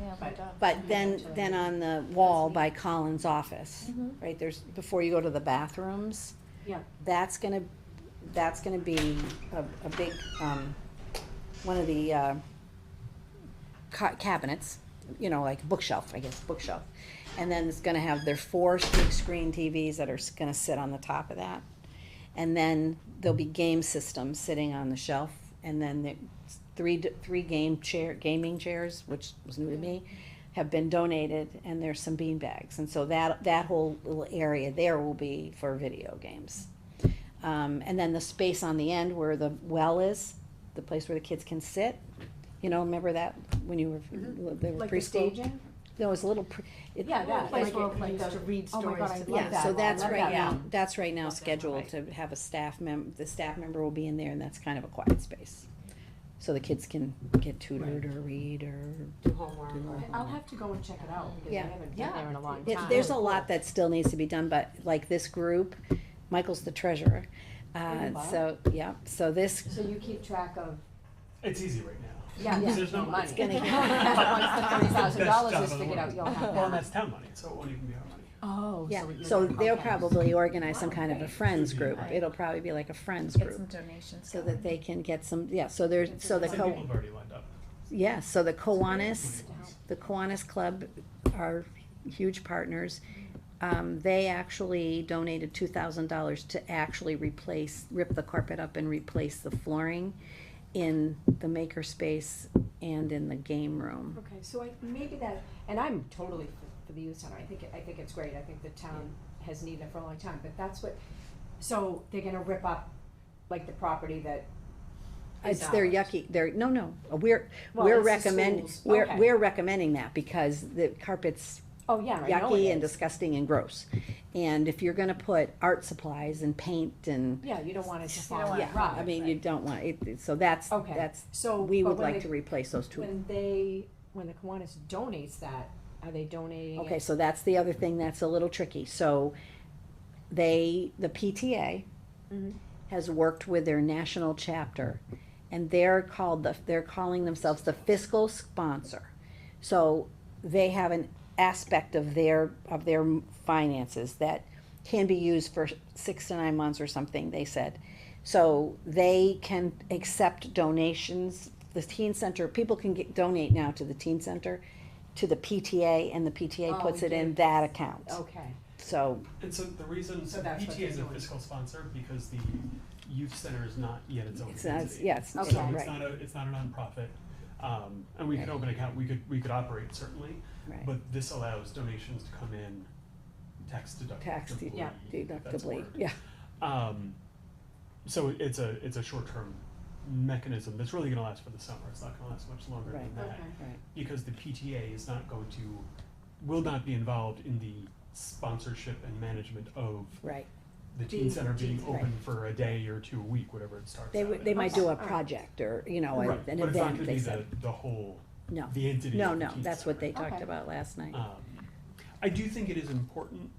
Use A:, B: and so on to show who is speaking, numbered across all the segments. A: Yeah, we
B: But-
A: don't.
C: But then, then on the wall by Colin's office,
A: Mhm.
C: right, there's, before you go to the bathrooms,
B: Yeah,
C: that's gonna, that's gonna be a, a big, um, one of the, uh, ca- cabinets, you know, like bookshelf, I guess, bookshelf. And then it's gonna have their four big screen TVs that are s- gonna sit on the top of that. And then there'll be game systems sitting on the shelf, and then the three, d- three game chair, gaming chairs, which was new to me, have been donated, and there's some bean bags, and so that, that whole little area there will be for video games. Um, and then the space on the end where the well is, the place where the kids can sit, you know, remember that, when you were, they were
B: Mm-hmm. like the
C: preschool?
B: staging?
C: No, it was a little, pre- it,
B: Yeah, that,
A: Like
B: like
A: it
B: it used to read
A: Oh my
B: stories
A: God, I
B: to the
A: love
B: kids.
A: that.
C: yeah, so that's
B: I love
C: right
B: that.
C: now, that's right now
B: Love that
C: scheduled to
B: one,
C: have a staff mem, the staff member will be in there and that's kind of a quiet space. So the kids can get tutored or read or,
B: Do homework.
C: Do homework.
B: I'll have to go and check it out because I
C: Yeah.
B: haven't been there in a long
C: It-
B: time.
C: there's a lot that still needs to be done, but like this group, Michael's the treasurer.
B: Are you
C: Uh,
B: Bob?
C: so, yeah, so this,
B: So you keep track of,
D: It's easy right now.
B: yeah,
C: Yeah.
B: this
D: There's
B: is
D: no
B: no
D: money.
B: money.
D: It's
C: gonna get-
B: Once the thirty thousand dollars
D: Best job in
B: is
D: the
B: figured out,
D: world.
B: you'll have
D: Well, and
B: that.
D: that's town money, so it won't even be our money.
B: Oh,
C: yeah,
B: you're-
C: so they'll
B: okay.
C: probably organize some
B: Wow,
C: kind of a
B: great.
C: friends
D: Should be.
C: group.
A: Right.
C: It'll probably be like a friends
A: Get
C: group.
A: some donations.
C: So that they can get some, yeah, so there's, so the
D: Some people
C: co,
D: have already lined up.
C: yeah, so the Kiwanis,
D: Yes.
C: the Kiwanis Club are huge partners. Um, they actually donated two thousand dollars to actually replace, rip the carpet up and replace the flooring in the maker space and in the game room.
B: Okay, so I, maybe that, and I'm totally for, for the youth center, I think, it- I think it's great, I think the town has needed it for a long time, but that's what, so they're gonna rip up, like, the property that is
C: It's, they're
B: ours.
C: yucky, they're, no, no, we're,
B: Well,
C: we're
B: it's the
C: recommend,
B: schools.
C: we're,
B: Okay.
C: we're recommending that because the carpet's
B: Oh, yeah, I know it
C: yucky and
B: is.
C: disgusting and gross. And if you're gonna put art supplies and paint and,
B: Yeah, you don't want it to fall
A: don't
B: and
A: want
C: yeah,
A: it
B: rot.
C: I mean, you don't want, it, it- so that's,
B: Okay.
C: that's,
B: So,
C: we
B: but
C: would
B: when
C: like
B: they-
C: to replace those two.
B: When they, when the Kiwanis donates that, are they donating
C: Okay,
B: it?
C: so that's the other thing that's a little tricky, so they, the PTA
B: Mhm.
C: has worked with their national chapter, and they're called the, they're calling themselves the fiscal sponsor. So they have an aspect of their, of their finances that can be used for six to nine months or something, they said. So they can accept donations, the teen center, people can get, donate now to the teen center, to the PTA, and the PTA
B: Oh,
C: puts it in
B: yes.
C: that account.
B: Okay,
C: So,
D: And so the reason,
B: So that's what
D: PTA is
B: they're
D: a
B: doing.
D: fiscal sponsor because the youth center is not yet its own
C: it's, not- it's-
D: entity.
C: yeah, it's,
B: Okay.
D: So
C: right,
D: it's not a, it's not a nonprofit, um, and we could
C: Right.
D: open account, we could, we could operate certainly,
C: right.
D: but this allows donations to come in tax deductibly.
C: Tax de-
B: yeah,
D: that's the
C: Deductibly,
D: word.
C: yeah,
D: Um, so it- it's a, it's a short-term mechanism that's really gonna last for the summer, it's not gonna last much longer than
C: Right.
D: that.
B: okay.
C: right,
D: because the PTA is not going to, will not be involved in the sponsorship and management of
C: right.
D: the teen
B: The
D: center being
B: teen-
D: open for a day or two a week, whatever it starts
C: They
D: out
C: would,
D: at.
C: they might do a
B: Okay.
C: project or, you know,
D: Right,
C: a- an
D: but it's not
C: event,
D: gonna
C: they
D: be
C: said,
D: the, the whole,
C: no,
D: the entity
C: no,
D: of the
C: no,
D: teen
C: that's what they
D: center.
C: talked
B: Okay.
C: about last night.
D: Um, I do think it is important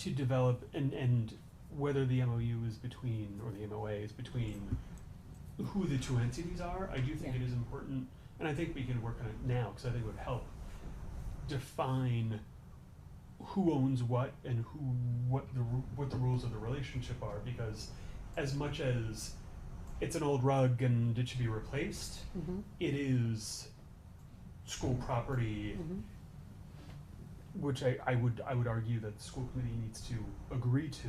D: to develop and, and whether the MOU is between, or the MOA is between who the two entities are, I do think
C: Yeah.
D: it is important, and I think we can work on it now, cause I think it would help define who owns what and who, what the, ru- what the rules of the relationship are, because as much as it's an old rug and it should be replaced,
C: Mhm.
D: it is school property,
C: Mhm.
D: which I, I would, I would argue that the school committee needs to agree to.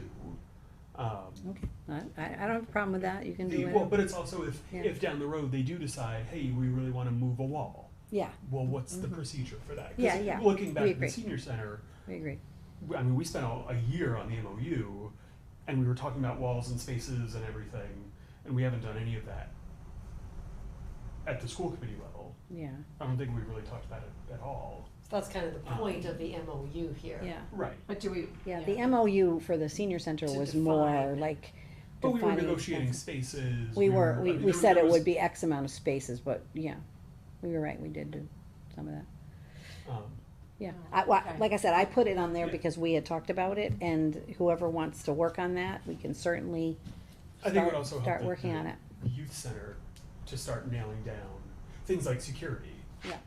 D: Um,
C: Okay, I, I I don't have a problem with that, you can
D: the-
C: do
D: well,
C: it,
D: but it's also if,
C: Yeah.
D: if down the road they do decide, hey, we really wanna move a wall,
C: yeah,
D: well, what's the procedure for that? 'Cause
C: Yeah, yeah,
D: Looking back
C: we
D: at the
C: agree.
D: senior center,
C: we agree,
D: w- I mean, we spent a, a year on the MOU and we were talking about walls and spaces and everything, and we haven't done any of that at the school committee level.
C: yeah,
D: I don't think we really talked about it at all.
E: So That's kind of the point of the MOU here.
C: yeah.
D: Right.
B: But do we,
C: Yeah, the MOU for the senior center
E: To
C: was
E: define.
C: more like
D: But we were
C: defining-
D: negotiating spaces.
C: We were,
D: I
C: we,
D: mean,
C: we
D: there-
C: said
D: there
C: it
D: was,
C: would be X amount of spaces, but yeah, we were right, we did do some of that.
D: um,
C: Yeah,
B: Oh,
C: I, well,
B: okay.
C: like I said, I put it on there
D: Yeah.
C: because we had talked about it, and whoever wants to work on that, we can certainly
D: I think it
C: start,
D: would also help
C: start
D: the-
C: working
D: the
C: on it.
D: Youth center to start nailing down things like security.
C: Yeah.